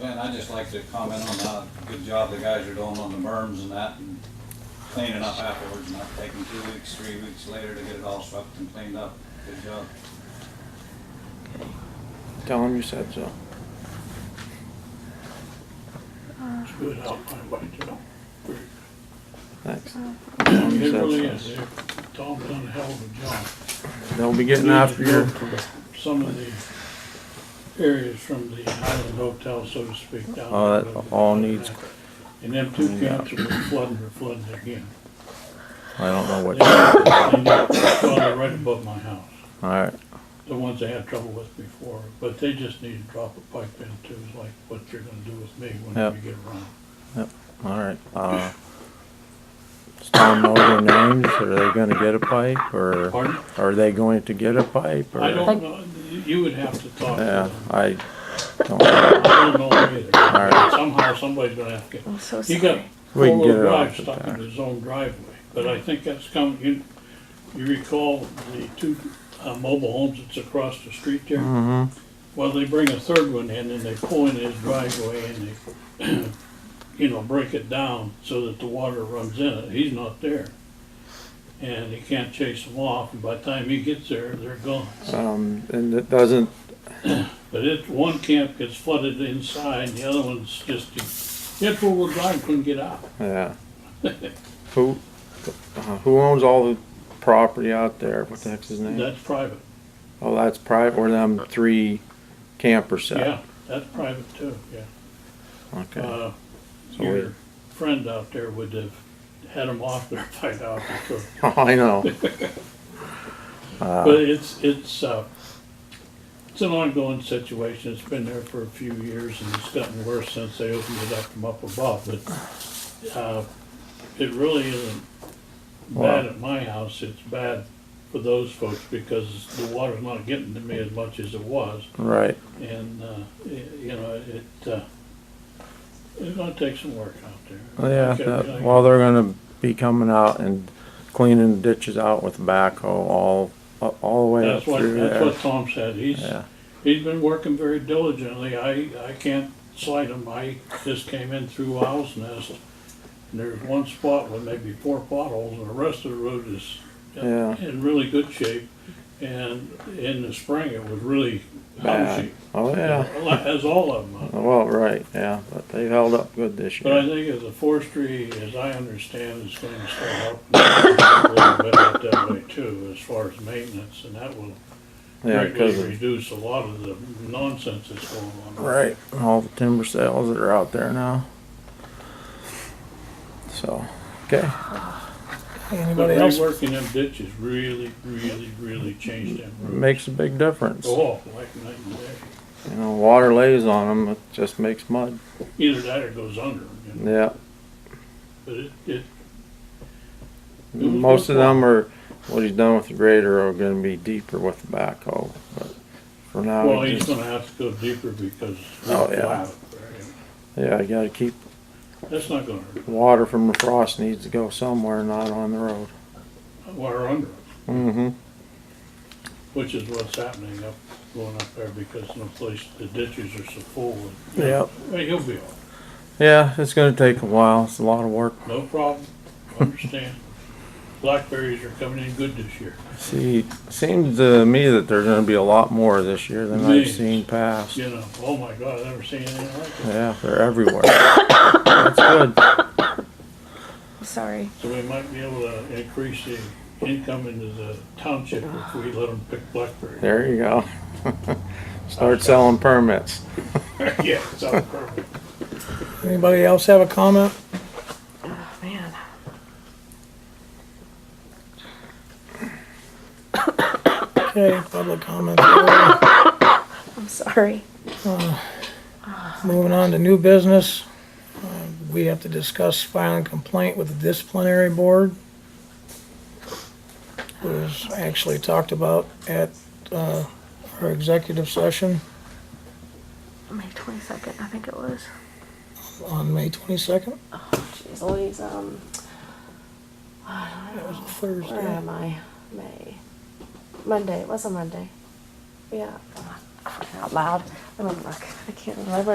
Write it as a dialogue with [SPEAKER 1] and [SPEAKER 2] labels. [SPEAKER 1] Ben, I'd just like to comment on how good job the guys are doing on the berms and that, and cleaning up afterwards, not taking two weeks, three weeks later to get it all swept and cleaned up. Good job.
[SPEAKER 2] Tell him you said so.
[SPEAKER 3] It's good out there, but, uh,
[SPEAKER 2] Thanks. Tell him you
[SPEAKER 3] It really
[SPEAKER 2] said
[SPEAKER 3] is. They- Tom's done a hell of a job.
[SPEAKER 2] so. They'll be getting after your,
[SPEAKER 3] Some of the areas from the Highland Hotel, so to speak, down.
[SPEAKER 2] Oh,
[SPEAKER 3] there.
[SPEAKER 2] that all needs-
[SPEAKER 3] And them two camps have been flooding, or flooding again.
[SPEAKER 2] I don't know
[SPEAKER 3] They
[SPEAKER 2] what, all
[SPEAKER 3] Well, they're right above my house,
[SPEAKER 2] right,
[SPEAKER 3] the ones I had trouble with before, but they just need to drop a pipe in too, is like what you're gonna do with me whenever you
[SPEAKER 2] Yep.
[SPEAKER 3] get around.
[SPEAKER 2] all right. Uh, Does Tom know their names? Are they gonna get a pipe or
[SPEAKER 3] Pardon?
[SPEAKER 2] are they going to get a pipe or?
[SPEAKER 3] I don't know, you- you would have to talk to
[SPEAKER 2] Yeah,
[SPEAKER 3] them.
[SPEAKER 2] I don't,
[SPEAKER 3] I don't know either.
[SPEAKER 2] right.
[SPEAKER 3] Somehow, somebody's gonna have to get
[SPEAKER 4] I'm so
[SPEAKER 3] He got
[SPEAKER 4] sorry.
[SPEAKER 2] We can get
[SPEAKER 3] four-wheel
[SPEAKER 2] it off
[SPEAKER 3] drive
[SPEAKER 2] the
[SPEAKER 3] stuck
[SPEAKER 2] back.
[SPEAKER 3] in his own driveway, but I think that's come, you, you recall the two uh, mobile homes that's across the street there?
[SPEAKER 2] mhm.
[SPEAKER 3] Well, they bring a third one in and they pull in his driveway and they, you know, break it down so that the water runs in it. He's not there. And he can't chase them off, and by the time he gets there, they're gone.
[SPEAKER 2] Um, and it doesn't,
[SPEAKER 3] But it, one camp gets flooded inside, the other one's just, hit four-wheel drive, couldn't get out.
[SPEAKER 2] yeah. Who, uh, who owns all the property out there? What the heck's his name?
[SPEAKER 3] That's private.
[SPEAKER 2] Oh, that's private, or them three camper
[SPEAKER 3] Yeah,
[SPEAKER 2] set?
[SPEAKER 3] that's private too, yeah.
[SPEAKER 2] Okay,
[SPEAKER 3] Uh,
[SPEAKER 2] So we-
[SPEAKER 3] Your friend out there would have had him off there by now for sure.
[SPEAKER 2] I know. Uh.
[SPEAKER 3] But it's, it's, uh, it's an ongoing situation. It's been there for a few years and it's gotten worse since they opened it up from up above, but, uh, it really isn't
[SPEAKER 2] Wow.
[SPEAKER 3] bad at my house. It's bad for those folks because the water's not getting to me as much as it was.
[SPEAKER 2] Right,
[SPEAKER 3] And, uh, y- you know, it, uh, it's gonna take some work out there.
[SPEAKER 2] Well, Oh, yeah,
[SPEAKER 3] Okay,
[SPEAKER 2] that,
[SPEAKER 3] okay.
[SPEAKER 2] well, they're gonna be coming out and cleaning ditches out with backhoe all, all the way up
[SPEAKER 3] That's what,
[SPEAKER 2] through
[SPEAKER 3] that's
[SPEAKER 2] there.
[SPEAKER 3] what Tom said. He's,
[SPEAKER 2] Yeah,
[SPEAKER 3] he's been working very diligently. I, I can't slight him. I just came in through Owl's Nest. And there's one spot with maybe four potholes and the rest of the road is
[SPEAKER 2] Yeah.
[SPEAKER 3] in really good shape. And in the spring, it was really
[SPEAKER 2] bad.
[SPEAKER 3] lousy.
[SPEAKER 2] Oh, yeah,
[SPEAKER 3] As all of them.
[SPEAKER 2] well, right, yeah, but they held up good this
[SPEAKER 3] But I
[SPEAKER 2] year.
[SPEAKER 3] think as a forestry, as I understand, is going to start up a little bit out that way too, as far as maintenance, and that will
[SPEAKER 2] Yeah,
[SPEAKER 3] greatly
[SPEAKER 2] 'cause of-
[SPEAKER 3] reduce a lot of the nonsense that's going on.
[SPEAKER 2] Right, and all the timber sales that are out there now. So, okay.
[SPEAKER 3] But
[SPEAKER 2] Anybody else?
[SPEAKER 3] reworking them ditches really, really, really changed them roads.
[SPEAKER 2] Makes a big difference.
[SPEAKER 3] Go off like night and day.
[SPEAKER 2] You know, water lays on them, it just makes mud.
[SPEAKER 3] Either that or goes under, you know,
[SPEAKER 2] Yeah,
[SPEAKER 3] but it, it, Mm-hmm.
[SPEAKER 2] most of them are, what he's done with the grader are gonna be deeper with the backhoe, but for now,
[SPEAKER 3] well,
[SPEAKER 2] we
[SPEAKER 3] he's
[SPEAKER 2] just-
[SPEAKER 3] gonna have to go deeper because. it's
[SPEAKER 2] Oh, yeah.
[SPEAKER 3] flat there.
[SPEAKER 2] yeah, you gotta keep,
[SPEAKER 3] That's not gonna hurt,
[SPEAKER 2] water from the frost needs to go somewhere, not on the road.
[SPEAKER 3] or under.
[SPEAKER 2] Mm-hmm,
[SPEAKER 3] Which is what's happening up, going up there because no place, the ditches are so full. and-
[SPEAKER 2] Yep.
[SPEAKER 3] Hey, he'll be all, right.
[SPEAKER 2] yeah, it's gonna take a while, it's a lot of work.
[SPEAKER 3] no problem, understand. Blackberries are coming in good this year.
[SPEAKER 2] See, seems to me that there's gonna be a lot more this year than I've
[SPEAKER 3] Millions.
[SPEAKER 2] seen past.
[SPEAKER 3] You know, oh my God, I've never seen anything like it.
[SPEAKER 2] Yeah, they're everywhere. That's good.
[SPEAKER 4] I'm sorry.
[SPEAKER 3] So we might be able to increase the income into the township if we let them pick blackberries.
[SPEAKER 2] There you go. Start selling permits.
[SPEAKER 3] Yeah, sounds perfect.
[SPEAKER 5] Anybody else have a comment?
[SPEAKER 4] Oh, man.
[SPEAKER 5] Okay, public comments. over.
[SPEAKER 4] I'm sorry.
[SPEAKER 5] Moving on to new business. Uh, We have to discuss filing complaint with the disciplinary board. It was actually talked about at uh, our executive session
[SPEAKER 4] May 22nd, I think it was.
[SPEAKER 5] on May 22nd.
[SPEAKER 4] Jeez Louise, um,
[SPEAKER 5] That was a
[SPEAKER 4] where
[SPEAKER 5] Thursday.
[SPEAKER 4] am I? May. Oh, Monday. It was a Monday. Yeah. Out loud. Let me look. I can't remember